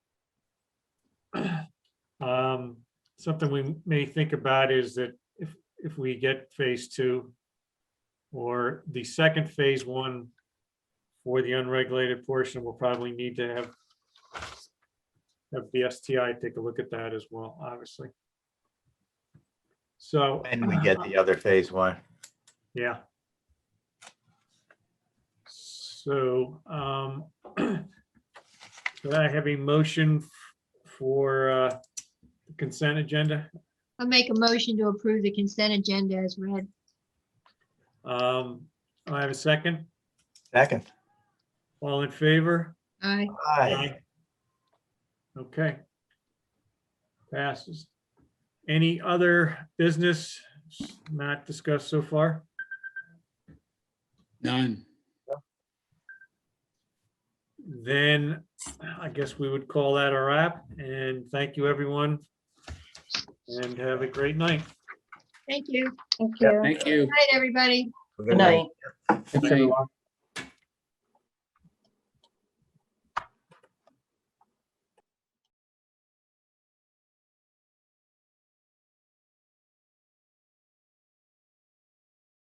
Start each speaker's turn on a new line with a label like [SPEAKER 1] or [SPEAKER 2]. [SPEAKER 1] Um, Something we may think about is that if, if we get phase two or the second phase one for the unregulated portion, we'll probably need to have have the STI take a look at that as well, obviously. So.
[SPEAKER 2] And we get the other phase one.
[SPEAKER 1] Yeah. So, um, do I have a motion f- for, uh, consent agenda?
[SPEAKER 3] I'll make a motion to approve the consent agenda as read.
[SPEAKER 1] Um, I have a second.
[SPEAKER 2] Second.
[SPEAKER 1] All in favor?
[SPEAKER 3] Aye.
[SPEAKER 2] Aye.
[SPEAKER 1] Okay. Passes. Any other business not discussed so far?
[SPEAKER 4] None.
[SPEAKER 1] Then I guess we would call that a wrap and thank you, everyone. And have a great night.
[SPEAKER 3] Thank you.
[SPEAKER 5] Thank you.
[SPEAKER 4] Thank you.
[SPEAKER 3] Good night, everybody.
[SPEAKER 5] Good night.
[SPEAKER 4] Good night.